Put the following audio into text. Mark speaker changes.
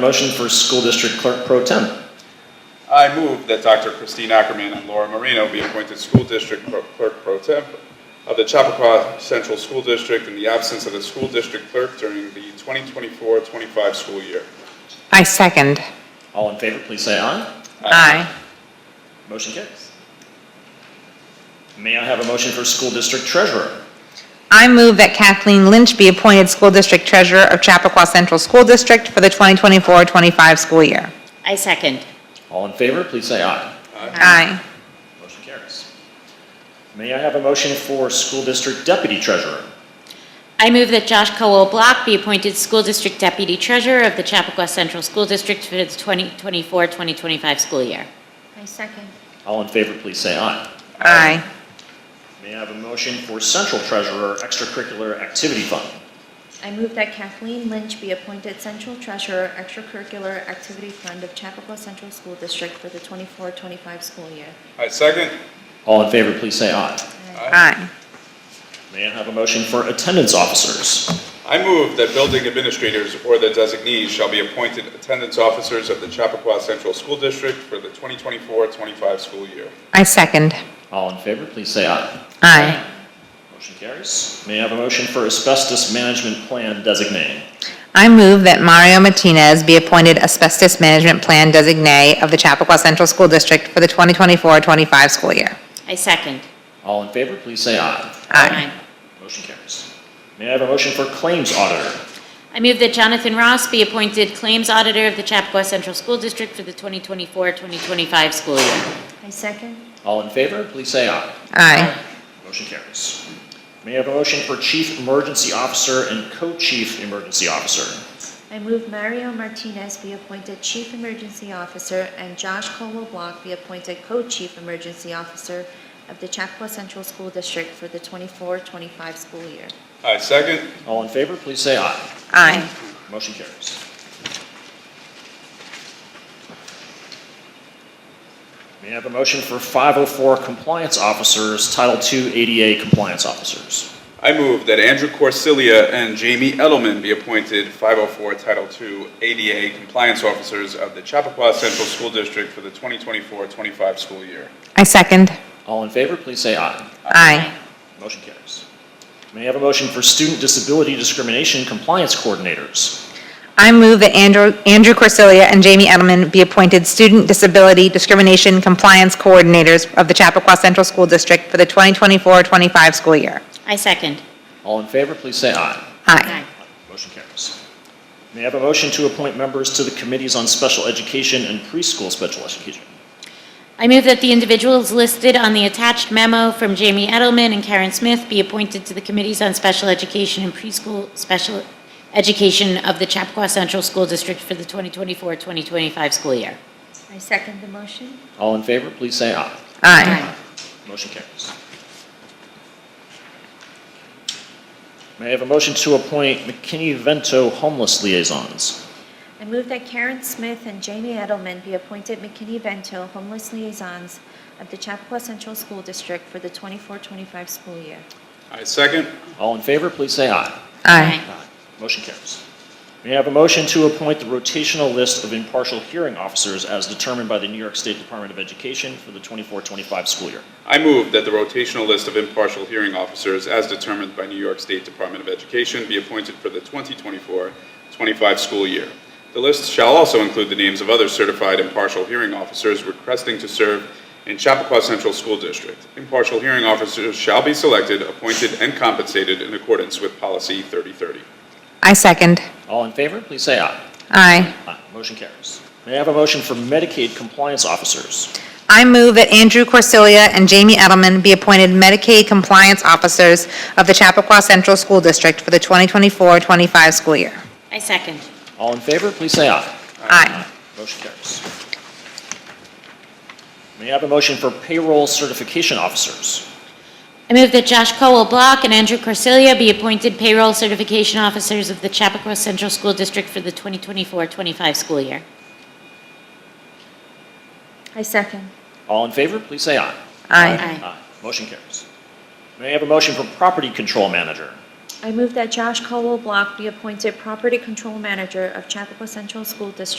Speaker 1: Motion for School District Clerk Pro Tem.
Speaker 2: I move that Dr. Christine Ackerman and Laura Marino be appointed school district pro- clerk pro temp of the Chappaqua Central School District in the absence of the school district clerk during the 2024-25 school year.
Speaker 3: I second.
Speaker 1: All in favor, please say aye.
Speaker 3: Aye.
Speaker 1: Motion carries. May I have a motion for School District Treasurer?
Speaker 3: I move that Kathleen Lynch be appointed School District Treasurer of Chappaqua Central School District for the 2024-25 school year.
Speaker 4: I second.
Speaker 1: All in favor, please say aye.
Speaker 3: Aye.
Speaker 1: Motion carries. May I have a motion for School District Deputy Treasurer?
Speaker 4: I move that Josh Colwell Block be appointed School District Deputy Treasurer of the Chappaqua Central School District for the 2024-2025 school year.
Speaker 5: I second.
Speaker 1: All in favor, please say aye.
Speaker 3: Aye.
Speaker 1: May I have a motion for Central Treasurer Extracurricular Activity Fund?
Speaker 5: I move that Kathleen Lynch be appointed Central Treasurer Extracurricular Activity Fund of Chappaqua Central School District for the 24-25 school year.
Speaker 2: I second.
Speaker 1: All in favor, please say aye.
Speaker 3: Aye.
Speaker 1: May I have a motion for Attendance Officers?
Speaker 2: I move that building administrators or their designees shall be appointed attendance officers of the Chappaqua Central School District for the 2024-25 school year.
Speaker 3: I second.
Speaker 1: All in favor, please say aye.
Speaker 3: Aye.
Speaker 1: Motion carries. May I have a motion for asbestos management plan designee?
Speaker 3: I move that Mario Martinez be appointed Asbestos Management Plan Designee of the Chappaqua Central School District for the 2024-25 school year.
Speaker 4: I second.
Speaker 1: All in favor, please say aye.
Speaker 3: Aye.
Speaker 1: Motion carries. May I have a motion for claims auditor?
Speaker 4: I move that Jonathan Ross be appointed Claims Auditor of the Chappaqua Central School District for the 2024-2025 school year.
Speaker 5: I second.
Speaker 1: All in favor, please say aye.
Speaker 3: Aye.
Speaker 1: Motion carries. May I have a motion for chief emergency officer and co-chief emergency officer?
Speaker 5: I move Mario Martinez be appointed Chief Emergency Officer and Josh Colwell Block be appointed Co-Chief Emergency Officer of the Chappaqua Central School District for the 24-25 school year.
Speaker 2: I second.
Speaker 1: All in favor, please say aye.
Speaker 3: Aye.
Speaker 1: Motion carries. May I have a motion for 504 compliance officers, Title II ADA compliance officers?
Speaker 2: I move that Andrew Corsilia and Jamie Edelman be appointed 504 Title II ADA Compliance Officers of the Chappaqua Central School District for the 2024-25 school year.
Speaker 3: I second.
Speaker 1: All in favor, please say aye.
Speaker 3: Aye.
Speaker 1: Motion carries. May I have a motion for student disability discrimination compliance coordinators?
Speaker 3: I move that Andrew Andrew Corsilia and Jamie Edelman be appointed Student Disability Discrimination Compliance Coordinators of the Chappaqua Central School District for the 2024-25 school year.
Speaker 4: I second.
Speaker 1: All in favor, please say aye.
Speaker 3: Aye.
Speaker 1: Motion carries. May I have a motion to appoint members to the committees on special education and preschool special education?
Speaker 4: I move that the individuals listed on the attached memo from Jamie Edelman and Karen Smith be appointed to the Committees on Special Education and Preschool Special Education of the Chappaqua Central School District for the 2024-2025 school year.
Speaker 5: I second the motion.
Speaker 1: All in favor, please say aye.
Speaker 3: Aye.
Speaker 1: Motion carries. May I have a motion to appoint McKinney-Vento homeless liaisons?
Speaker 5: I move that Karen Smith and Jamie Edelman be appointed McKinney-Vento homeless liaisons of the Chappaqua Central School District for the 24-25 school year.
Speaker 2: I second.
Speaker 1: All in favor, please say aye.
Speaker 3: Aye.
Speaker 1: Aye. Motion carries. May I have a motion to appoint the rotational list of impartial hearing officers as determined by the New York State Department of Education for the 24-25 school year?
Speaker 2: I move that the rotational list of impartial hearing officers, as determined by New York State Department of Education, be appointed for the 2024-25 school year. The list shall also include the names of other certified impartial hearing officers requesting to serve in Chappaqua Central School District. Impartial hearing officers shall be selected, appointed, and compensated in accordance with Policy 3030.
Speaker 3: I second.
Speaker 1: All in favor, please say aye.
Speaker 3: Aye.
Speaker 1: Aye. Motion carries. May I have a motion for Medicaid compliance officers?
Speaker 3: I move that Andrew Corsilia and Jamie Edelman be appointed Medicaid Compliance Officers of the Chappaqua Central School District for the 2024-25 school year.
Speaker 4: I second.
Speaker 1: All in favor, please say aye.
Speaker 3: Aye.
Speaker 1: Motion carries. May I have a motion for payroll certification officers?
Speaker 4: I move that Josh Colwell Block and Andrew Corsilia be appointed Payroll Certification Officers of the Chappaqua Central School District for the 2024-25 school year.
Speaker 5: I second.
Speaker 1: All in favor, please say aye.
Speaker 3: Aye.
Speaker 4: Aye.
Speaker 1: Motion carries. May I have a motion for property control manager?
Speaker 5: I move that Josh Colwell Block be appointed Property Control Manager of Chappaqua Central School District